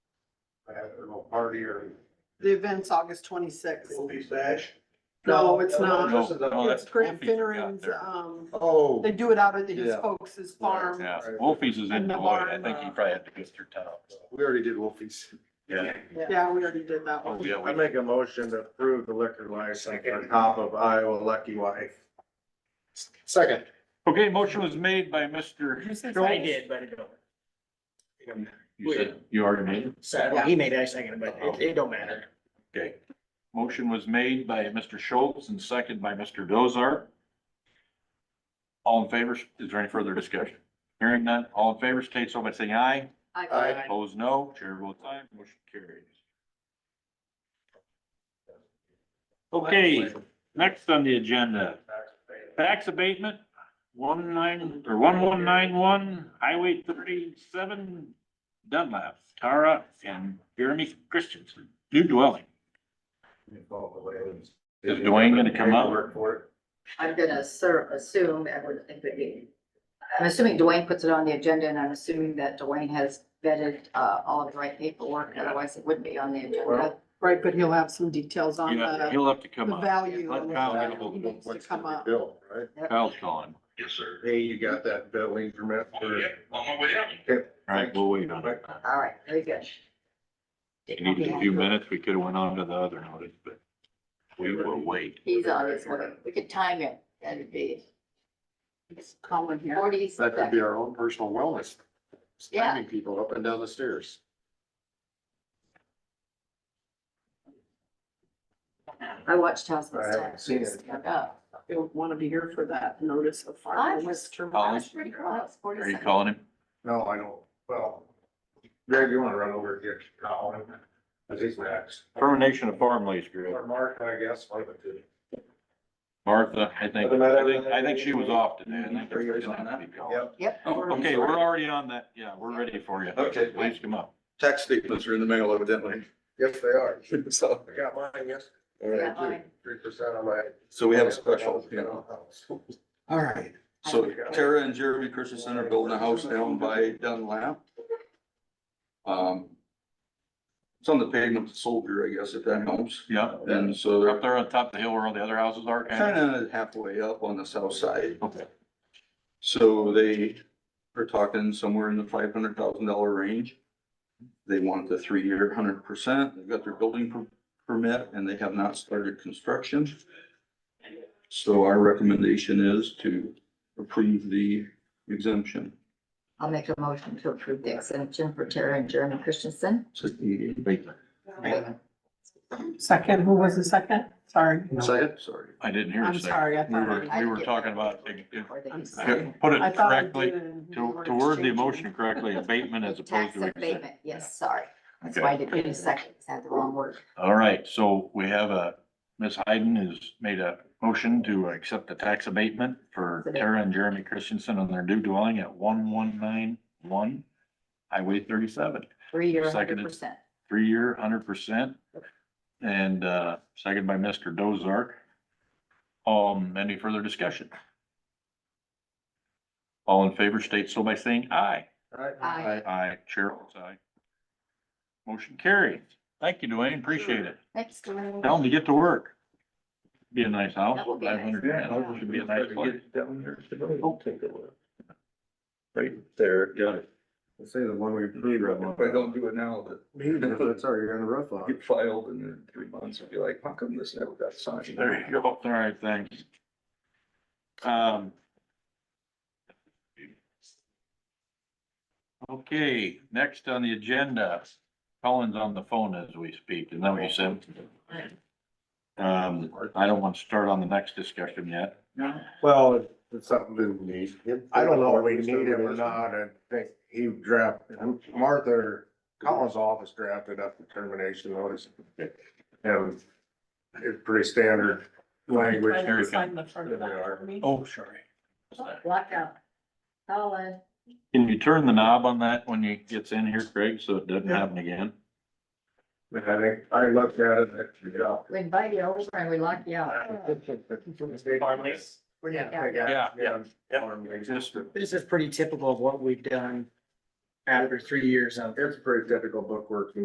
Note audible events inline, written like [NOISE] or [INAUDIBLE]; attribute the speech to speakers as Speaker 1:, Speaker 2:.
Speaker 1: have a little party or
Speaker 2: The event's August twenty-sixth.
Speaker 1: movie stash.
Speaker 2: No, it's not.
Speaker 3: No, no,
Speaker 2: It's
Speaker 3: that's
Speaker 2: Grant
Speaker 3: Wolfie's we got
Speaker 2: Finneran's,
Speaker 3: there.
Speaker 2: um,
Speaker 1: Oh,
Speaker 2: they do it out at his
Speaker 4: Yeah.
Speaker 2: folks' farm.
Speaker 3: Yeah, Wolfie's is in
Speaker 2: And the
Speaker 3: Beloit. I
Speaker 2: barn,
Speaker 3: think he
Speaker 2: uh,
Speaker 3: probably had to go through town. so.
Speaker 4: We already did Wolfies.
Speaker 3: Yeah.
Speaker 2: Yeah, we already did that
Speaker 3: Oh,
Speaker 2: one.
Speaker 3: yeah,
Speaker 4: I
Speaker 3: we,
Speaker 4: make a motion to approve the liquor license on top of Iowa Lucky Wife. Second.
Speaker 3: okay, motion was made by Mr.
Speaker 5: Who says
Speaker 3: Jones.
Speaker 5: I did, but it don't.
Speaker 3: You said- you already made it?
Speaker 5: So, well, he made it, I seconded, but it, it don't matter.
Speaker 3: Okay. Motion was made by Mr. Schultz and second by Mr. Dozar. All in favor, is there any further discussion? Hearing none, all in favor, state so by saying aye.
Speaker 2: I-
Speaker 4: Aye.
Speaker 3: Opposed, no. Chair votes aye, motion carries. Okay, next on the agenda, tax abatement, one nine, or one one nine one, Highway thirty-seven, Dunlap, Tara and Jeremy Christensen, new dwelling. Is Dwayne gonna come up?
Speaker 1: Work for it.
Speaker 6: I'm gonna sur- assume, I would think would be, I'm assuming Dwayne puts it on the agenda and I'm assuming that Dwayne has vetted, uh, all of the right paperwork, otherwise it wouldn't be on the agenda.
Speaker 1: Well-
Speaker 2: Right, but he'll have some details on
Speaker 3: Yeah,
Speaker 2: the,
Speaker 3: he'll have to come
Speaker 2: the
Speaker 3: up.
Speaker 2: value.
Speaker 3: Let
Speaker 2: and
Speaker 3: Kyle
Speaker 2: the-
Speaker 3: get a hold
Speaker 2: He
Speaker 3: of
Speaker 2: needs to come up.
Speaker 4: Bill, right?
Speaker 3: Kyle's calling.
Speaker 7: Yes, sir.
Speaker 4: Hey, you got that building permit for?
Speaker 7: Yeah, on my way up.
Speaker 3: All right, we'll wait on it.
Speaker 6: All right, very good.
Speaker 3: We needed a few minutes. We could have went on to the other notice, but we will wait.
Speaker 6: He's on his way. We could time it. That'd be
Speaker 2: It's Colin here.
Speaker 6: forty
Speaker 4: That could
Speaker 6: seconds.
Speaker 4: be our own personal wellness. Standing people up and down the stairs.
Speaker 6: I watched House of
Speaker 1: I haven't
Speaker 6: Stacks.
Speaker 1: seen it.
Speaker 6: Stand up.
Speaker 2: He'll want to be here for that notice of
Speaker 6: I
Speaker 2: farm.
Speaker 6: was-
Speaker 3: Colin?
Speaker 6: I was pretty close, forty
Speaker 3: Are you
Speaker 6: seconds.
Speaker 3: calling him?
Speaker 1: No, I don't, well, Greg, you wanna run over and get Colin? Cause he's next.
Speaker 3: Termination of farm lease, Greg.
Speaker 1: Or Mark, I guess, one of the two.
Speaker 3: Martha, I think, I think, I think she was off today. I think that's why she don't have to be called.
Speaker 1: Yep.
Speaker 6: Yep.
Speaker 3: Oh, Okay, we're already on that. Yeah, we're ready for you.
Speaker 4: Okay.
Speaker 3: Please come up.
Speaker 4: Tax statements are in the mail evidently.
Speaker 1: Yes, they are.
Speaker 4: [LAUGHS] So,
Speaker 1: I got mine, yes.
Speaker 4: all
Speaker 6: Yeah,
Speaker 4: right.
Speaker 6: fine.
Speaker 1: Three percent on my.
Speaker 4: So we have a special, you know.
Speaker 1: All right.
Speaker 8: So Tara and Jeremy Christensen are building a house down by Dunlap. Um, it's on the pavement of Soldier, I guess, if that helps.
Speaker 3: Yeah,
Speaker 8: And so
Speaker 3: we're up
Speaker 8: they're
Speaker 3: there on top of the hill where all the other houses are.
Speaker 8: kind of halfway up on the south side.
Speaker 3: Okay.
Speaker 8: So they are talking somewhere in the five hundred thousand dollar range. They want the three-year hundred percent. They've got their building per- permit and they have not started construction. So our recommendation is to approve the exemption.
Speaker 6: I'll make a motion to approve the exemption for Tara and Jeremy Christensen.
Speaker 2: Second, who was the second? Sorry.
Speaker 4: Second?
Speaker 8: Sorry.
Speaker 3: I didn't hear a
Speaker 2: I'm
Speaker 3: [LAUGHS] second.
Speaker 2: sorry, I
Speaker 3: We were,
Speaker 2: thought. I-
Speaker 3: we were talking about,
Speaker 6: Before they-
Speaker 2: I'm sorry.
Speaker 3: put
Speaker 2: I
Speaker 3: it
Speaker 2: thought I
Speaker 3: correctly,
Speaker 2: did it and we
Speaker 3: to,
Speaker 2: were
Speaker 3: to word the
Speaker 2: exchanging.
Speaker 3: motion correctly, abatement [LAUGHS]
Speaker 6: [LAUGHS]
Speaker 3: as opposed
Speaker 6: Tax
Speaker 3: to. exemption.
Speaker 6: abatement, yes, sorry. That's
Speaker 3: Okay.
Speaker 6: why I didn't get a second, 'cause I had the wrong word.
Speaker 3: All right, so we have a, Ms. Hayden has made a motion to accept the tax abatement for Tara and Jeremy Christensen on their new dwelling at one one nine one Highway thirty-seven,
Speaker 6: Three-year, hundred
Speaker 3: Seconded.
Speaker 6: percent.
Speaker 3: three-year, hundred percent. And, uh, second by Mr. Dozark. Um, any further discussion? All in favor state so by saying aye.
Speaker 6: Aye.
Speaker 3: Aye, chair votes aye. Motion carried. Thank you, Dwayne, appreciate it.
Speaker 6: Thanks, Dwayne.
Speaker 3: Tell them to get to work. Be a nice house,
Speaker 6: That will be a
Speaker 3: five
Speaker 6: nice
Speaker 3: hundred
Speaker 6: house.
Speaker 3: grand, should be a nice place. Right
Speaker 4: There.
Speaker 3: Got it.
Speaker 4: Let's say the one we approved.
Speaker 8: If I don't do it now, that
Speaker 4: [LAUGHS] That's already on the roof on.
Speaker 8: get filed and in three months, I'll be like, how come this never got signed?
Speaker 3: There you go, all right, thanks. Um. Okay, next on the agenda, Colin's on the phone as we speak, and then we said. Um, I don't want to start on the next discussion yet.
Speaker 4: Well, it's something we need. I don't know if we need it or not. I think he drafted, Martha Collins' office drafted up the termination notice. And it's pretty standard language.
Speaker 3: Here we go.
Speaker 2: Sign the front of that for me.
Speaker 3: Oh, sorry.
Speaker 6: Blackout. Colin.
Speaker 3: Can you turn the knob on that when you gets in here, Craig, so it doesn't happen again?
Speaker 4: But I think, I looked at it, yeah.
Speaker 6: We invite you over and we lock you out.
Speaker 5: Farmly.
Speaker 3: Yeah,
Speaker 4: yeah.
Speaker 3: Just
Speaker 5: This is pretty typical of what we've done after three years of
Speaker 4: It's pretty typical bookwork.